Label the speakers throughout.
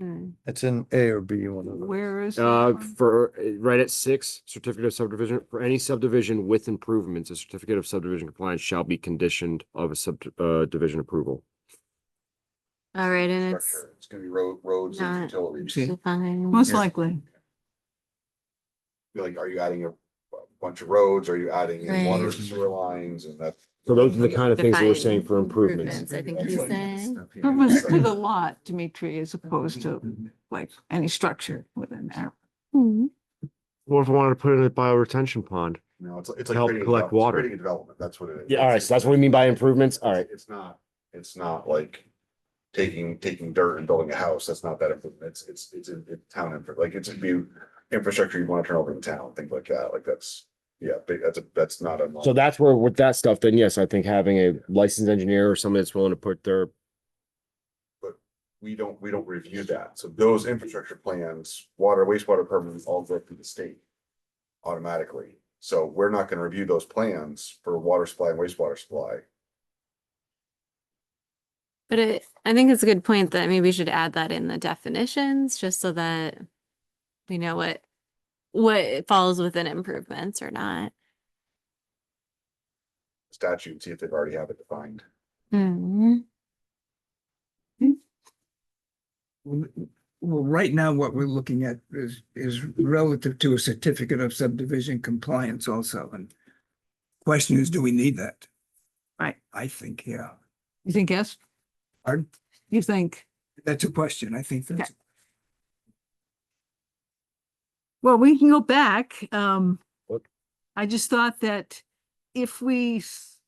Speaker 1: Mm.
Speaker 2: It's in A or B, one of them.
Speaker 1: Where is? that
Speaker 3: Uh,
Speaker 1: one?
Speaker 3: for, uh, right at six, certificate of subdivision, for any subdivision with improvements, a certificate of subdivision compliance shall be conditioned of a sub, uh, division approval.
Speaker 4: All right, and it's
Speaker 5: It's gonna be road, roads and
Speaker 4: Not-
Speaker 5: utilities.
Speaker 2: Okay.
Speaker 4: defined.
Speaker 1: Most likely.
Speaker 5: Like, are you adding a bunch of roads? Are you adding in water
Speaker 4: Right.
Speaker 5: sewer lines and that?
Speaker 3: So those are the kind of things that we're
Speaker 4: Defined
Speaker 3: saying for improvements.
Speaker 4: I think he's saying.
Speaker 1: Purpose to the lot, Dimitri, as
Speaker 5: Mm-hmm.
Speaker 1: opposed to like any structure within there.
Speaker 4: Hmm.
Speaker 3: Or if I wanted to put in a bio retention pond.
Speaker 5: No, it's, it's
Speaker 3: To
Speaker 5: like.
Speaker 3: help
Speaker 5: creating a
Speaker 3: collect
Speaker 5: develop- it's
Speaker 3: water.
Speaker 5: Creating a development, that's what it is.
Speaker 3: Yeah, all right, so that's what we mean by improvements, all right.
Speaker 5: It's not, it's not like taking, taking dirt and building a house, that's not that improvement, it's, it's, it's in in town, infra- like, it's a new infrastructure you wanna turn over in town, things like that, like, that's, yeah, big- that's, a that's not a.
Speaker 3: So that's where, with that stuff, then yes, I think having a licensed engineer or someone that's willing to put their,
Speaker 5: we don't, we don't review that. So those infrastructure plans, water, wastewater permits all go through the state automatically. So we're not gonna review those plans for water supply and wastewater supply.
Speaker 4: But it, I think it's a good point that maybe we should add that in the definitions, just so that we know what, what falls within improvements or not.
Speaker 5: Statute, and see if they've already have it defined.
Speaker 4: Mm.
Speaker 6: Well, well, right now, what we're looking at is, is relative to a certificate of subdivision compliance also, and question is, do we need that?
Speaker 1: Right.
Speaker 6: I think, yeah.
Speaker 1: You think yes?
Speaker 6: Pardon?
Speaker 1: You think,
Speaker 6: That's a question. I think that's,
Speaker 1: well, we can go back. Um,
Speaker 3: Look.
Speaker 1: I just thought that if we s-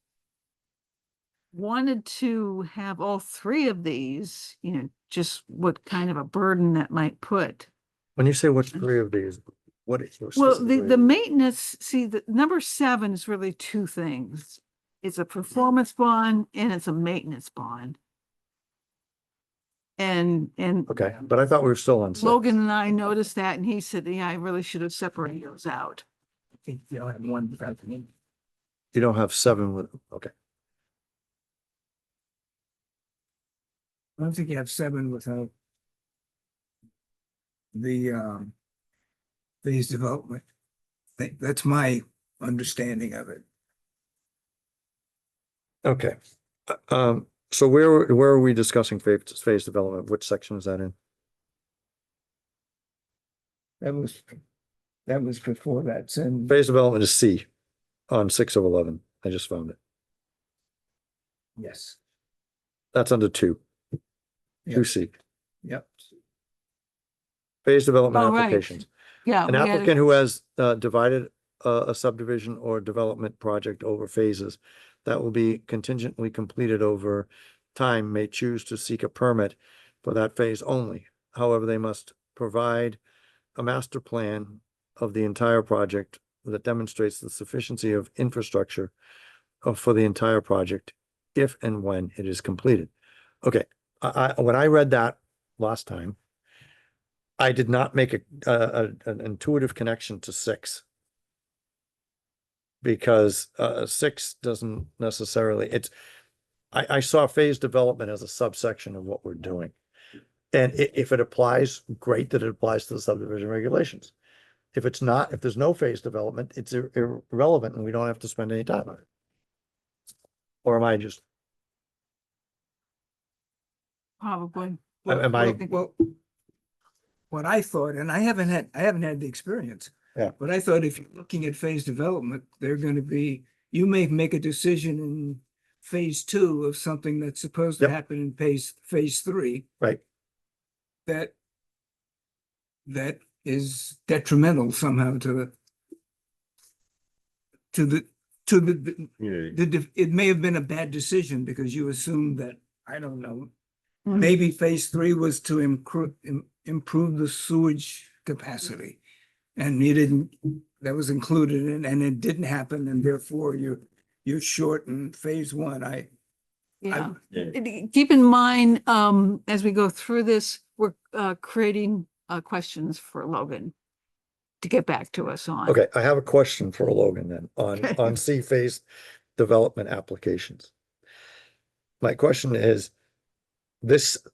Speaker 1: wanted to have all three of these, you know, just what kind of a burden that might put
Speaker 2: When you say what three of these, what? is-
Speaker 1: Well, the,
Speaker 2: specifically-
Speaker 1: the maintenance, see, the number seven is really two things. It's a performance bond and it's a maintenance bond. And, and
Speaker 2: Okay, but I thought we were still on. six.
Speaker 1: Logan and I noticed that and he said, yeah, I really should have separated those out.
Speaker 6: I think they will have one. without the name.
Speaker 2: You don't have seven with, okay.
Speaker 6: I don't think you have seven without the, um, these development. That- That's my understanding of it.
Speaker 2: Okay. Uh, Um, so where, where are we discussing phase, phase development? Which section is that in?
Speaker 6: That was, that was before that, so.
Speaker 2: Phase development is C on six of eleven. I just found it.
Speaker 6: Yes.
Speaker 2: That's under two.
Speaker 6: Yeah.
Speaker 2: Two C.
Speaker 6: Yep.
Speaker 2: Phase development
Speaker 1: Oh, right.
Speaker 2: applications.
Speaker 1: Yeah.
Speaker 2: An
Speaker 1: we had a-
Speaker 2: applicant who has uh, divided uh, a subdivision or development project over phases that will be contingently completed over time may choose to seek a permit for that phase only. However, they must provide a master plan of the entire project that demonstrates the sufficiency of infrastructure uh, for the entire project if and when it is completed. Okay, I, I, when I read that last time, I did not make a, a, a- an intuitive connection to six. Because, uh, six doesn't necessarily, it's, I, I saw phase development as a subsection of what we're doing. And i- if it applies, great that it applies to the subdivision regulations. If it's not, if there's no phase development, it's ir- irrelevant and we don't have to spend any time on it. Or am I just,
Speaker 1: Probably.
Speaker 2: Am- am
Speaker 6: Well,
Speaker 2: I-
Speaker 6: Well, what I thought, and I haven't had, I haven't had the experience.
Speaker 2: Yeah.
Speaker 6: But I thought if you're looking at phase development, they're gonna be, you may make a decision in phase two of something that's supposed to
Speaker 2: Yep.
Speaker 6: happen in phase, phase three.
Speaker 2: Right.
Speaker 6: That that is detrimental somehow to the to the, to the,
Speaker 3: community.
Speaker 6: the, def- it may have been a bad decision because you assumed that, I don't know,
Speaker 1: Mhm.
Speaker 6: maybe phase three was to improve, improve the sewage capacity. And you didn't, that was included and, and it didn't happen and therefore you're, you're short in phase one. I,
Speaker 1: Yeah.
Speaker 3: Yeah.
Speaker 1: And e- Keep in mind, um, as we go through this, we're, uh, creating, uh, questions for Logan to get back to us on.
Speaker 2: okay, I have a question for Logan then on, on C phase development applications. My question is, this